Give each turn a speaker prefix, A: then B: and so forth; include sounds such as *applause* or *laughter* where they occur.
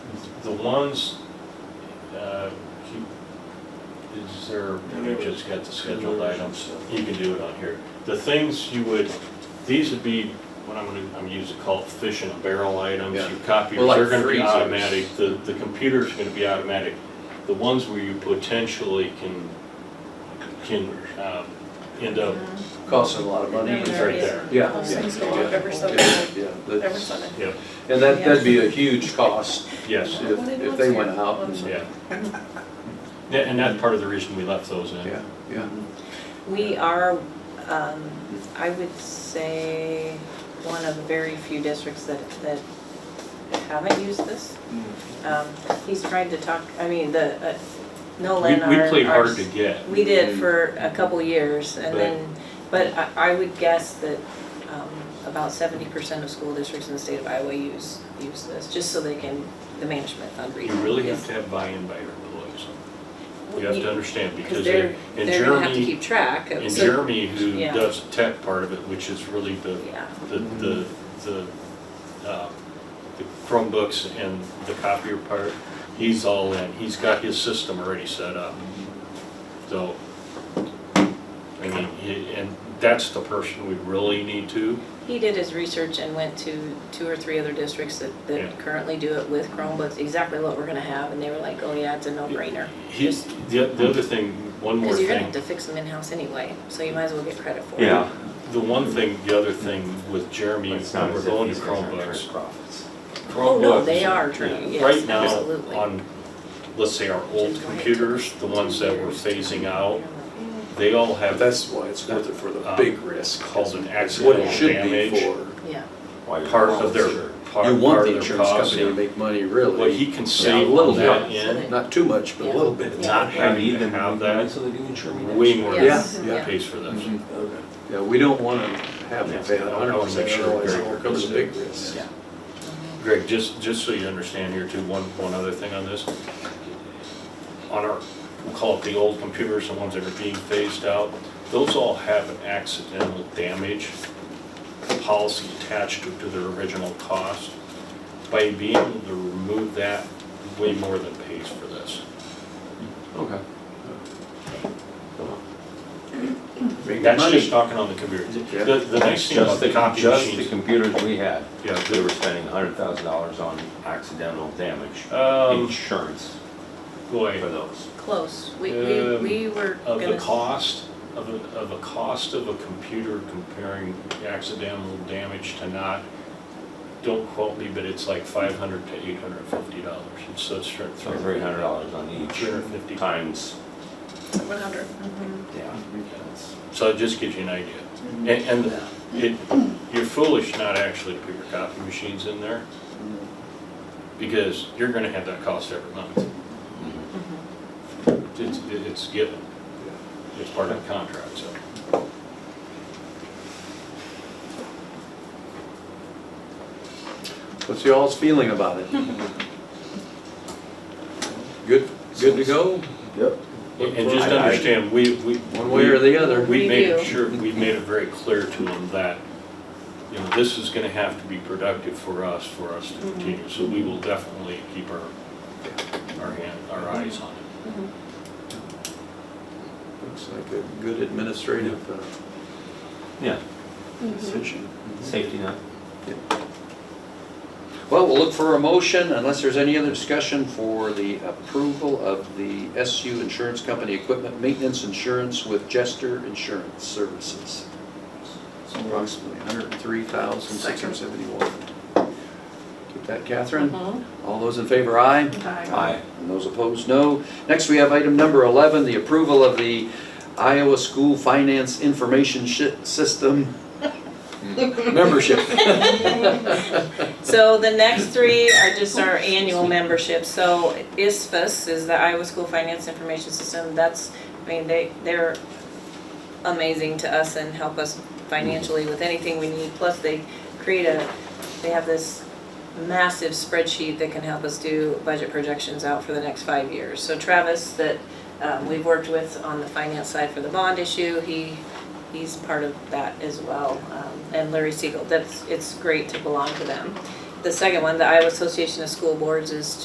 A: the ones, uh, keep- is there, we just got the scheduled items, you can do it on here. The things you would, these would be, what I'm gonna, I'm used to call fish in a barrel items,
B: Yeah.
A: your copiers,
B: Well, like
A: they're gonna be
B: freezers.
A: automatic, the, the computer's gonna be automatic. The ones where you potentially can, can, um, end up,
B: Costs a lot of money.
A: It's right there.
B: Yeah.
C: Those
B: yeah,
C: things go up
B: yeah,
C: every summer.
B: yeah, yeah, that's-
C: Every summer.
A: yeah,
B: And that, that'd be a huge cost
A: yes,
B: if, if they went out and, *laughs*
A: yeah. Yeah, And that's part of the reason we left those in.
B: yeah, yeah.
D: We are, um, I would say, one of the very few districts that, that haven't used this. Um, he's tried to talk, I mean, the, uh,
A: Mm. We,
D: Nolan,
A: we
D: our.
A: played
D: our-
A: hard to get.
D: We did for a couple years and
A: But-
D: then, but I, I would guess that, um, about seventy percent of school districts in the state of Iowa use, use this, just so they can, the management fund
A: You
D: reason.
A: really have
D: is-
A: to have buy-in by your employees. You have
D: you-
A: to understand
D: Cause
A: because
D: they're,
A: in in
D: they're gonna have to
A: Germany,
D: keep track of.
A: in
D: so-
A: Germany, who
D: Yeah.
A: does the tech part of it, which is really the,
D: Yeah.
A: the, the, the uh, the Chromebooks and the copier part, he's all in. He's got his system already set up. So, I mean, he- and that's the person we really need to.
D: He did his research and went to two or three other districts that,
A: Yeah.
D: that currently do it with Chromebooks, exactly what we're gonna have, and they were like, oh yeah, it's a no-brainer.
A: He's, the, the other thing, one more
D: Cause
A: thing.
D: you're gonna have to fix them in-house anyway, so you might as well get credit for it.
E: Yeah.
A: The one thing, the other thing with Jeremy,
E: It's not
A: when we're
E: as if
A: going
E: these
A: to
E: guys aren't
A: Chromebooks.
E: turning profits.
D: Oh, no, they
A: Chromebooks,
D: are turning,
A: yeah, Right
D: yes, absolutely.
A: now, on, let's say our old computers, the ones that we're phasing out, they all
B: But
A: have
B: that's why it's worth it for the
A: Um,
B: big risk.
A: called an
B: It's what
A: accidental
B: it should be
A: damage,
B: for.
D: Yeah,
E: Why
A: part
E: you're-
A: of their,
B: You
A: part
B: want
A: part
B: the
A: of their
B: insurance
A: cost.
B: company to
A: and
B: make money,
A: What
B: really.
A: he can
B: Yeah, a
A: save
B: little
A: on that
D: bit.
A: end,
B: Not too much, but a
D: Yeah.
B: little bit.
A: not
E: I
A: having
E: need
A: to
E: them
A: have
E: that,
A: that,
E: so they do insure me.
A: way more than
D: Yes,
B: Yeah,
D: yeah.
A: pays for this.
B: Mhm.
E: Okay.
B: Yeah, we don't want to have
A: Yeah.
B: it fail
A: I
B: a hundred
A: wanna make
B: percent,
A: sure
B: otherwise
A: very
B: it becomes a big risk.
D: yeah.
A: Greg, just, just so you understand here too, one, one other thing on this. On our, we'll call it the old computers, the ones that are being phased out, those all have an accidental damage policy attached to to their original cost. By being able to remove that, way more than pays for this.
E: Okay.
B: Big
A: That's
B: money.
A: just talking on the computer. The- The, the nice
E: That's
A: thing about
E: just
A: the
E: the,
A: copy
E: just the
A: machines.
E: computers we had.
A: Yeah.
E: They were spending hundred thousand dollars on accidental damage
A: Um,
E: insurance for
A: boy,
E: those.
D: close, we, we,
A: Um,
D: we were gonna.
A: of the
D: s-
A: cost, of a, of a cost of a computer comparing accidental damage to not, don't quote me, but it's like five hundred to eight hundred and fifty dollars, and so it's three
E: So three hundred dollars on each
A: hundred and fifty.
E: times,
C: One hundred.
E: yeah. that's-
A: So it just gives you an idea. And, and it, you're foolish not actually to put your copy machines in there, because you're gonna have that cost every month. It's, it's given, it's part of the contract, so.
B: What's y'all's feeling about it? Good, good to go,
F: Yep.
A: And just
E: I- I-
A: understand, we, we.
B: one way or the other?
A: We
D: We
A: made
D: do.
A: sure, we made it very clear to them that, you know, this is gonna have to be productive for us, for us to
B: Mm-hmm.
A: continue. So we will definitely keep our, our hand, our eyes on it.
D: Mm-hmm.
B: Looks like a good administrative uh,
E: Yeah,
D: Mm-hmm.
B: decision.
E: safety net.
B: Well, we'll look for a motion unless there's any other discussion for the approval of the SU Insurance Company Equipment Maintenance Insurance with Jester Insurance Services. Approximately $103,671. Keep that, Catherine?
D: Mm-hmm.
B: All those in favor, aye? And those opposed, no. Next, we have item number 11, the approval of the Iowa School Finance Information Shi- System membership.
D: So the next three are just our annual memberships, so ISFAS is the Iowa School Finance Information System, that's, I mean, they, they're amazing to us and help us financially with anything we need, plus they create a, they have this massive spreadsheet that can help us do budget projections out for the next five years. So Travis, that, um, we've worked with on the finance side for the bond issue, he he's part of that as well. um, And Larry Siegel, that's, it's great to belong to them. The second one, the Iowa Association of School Boards is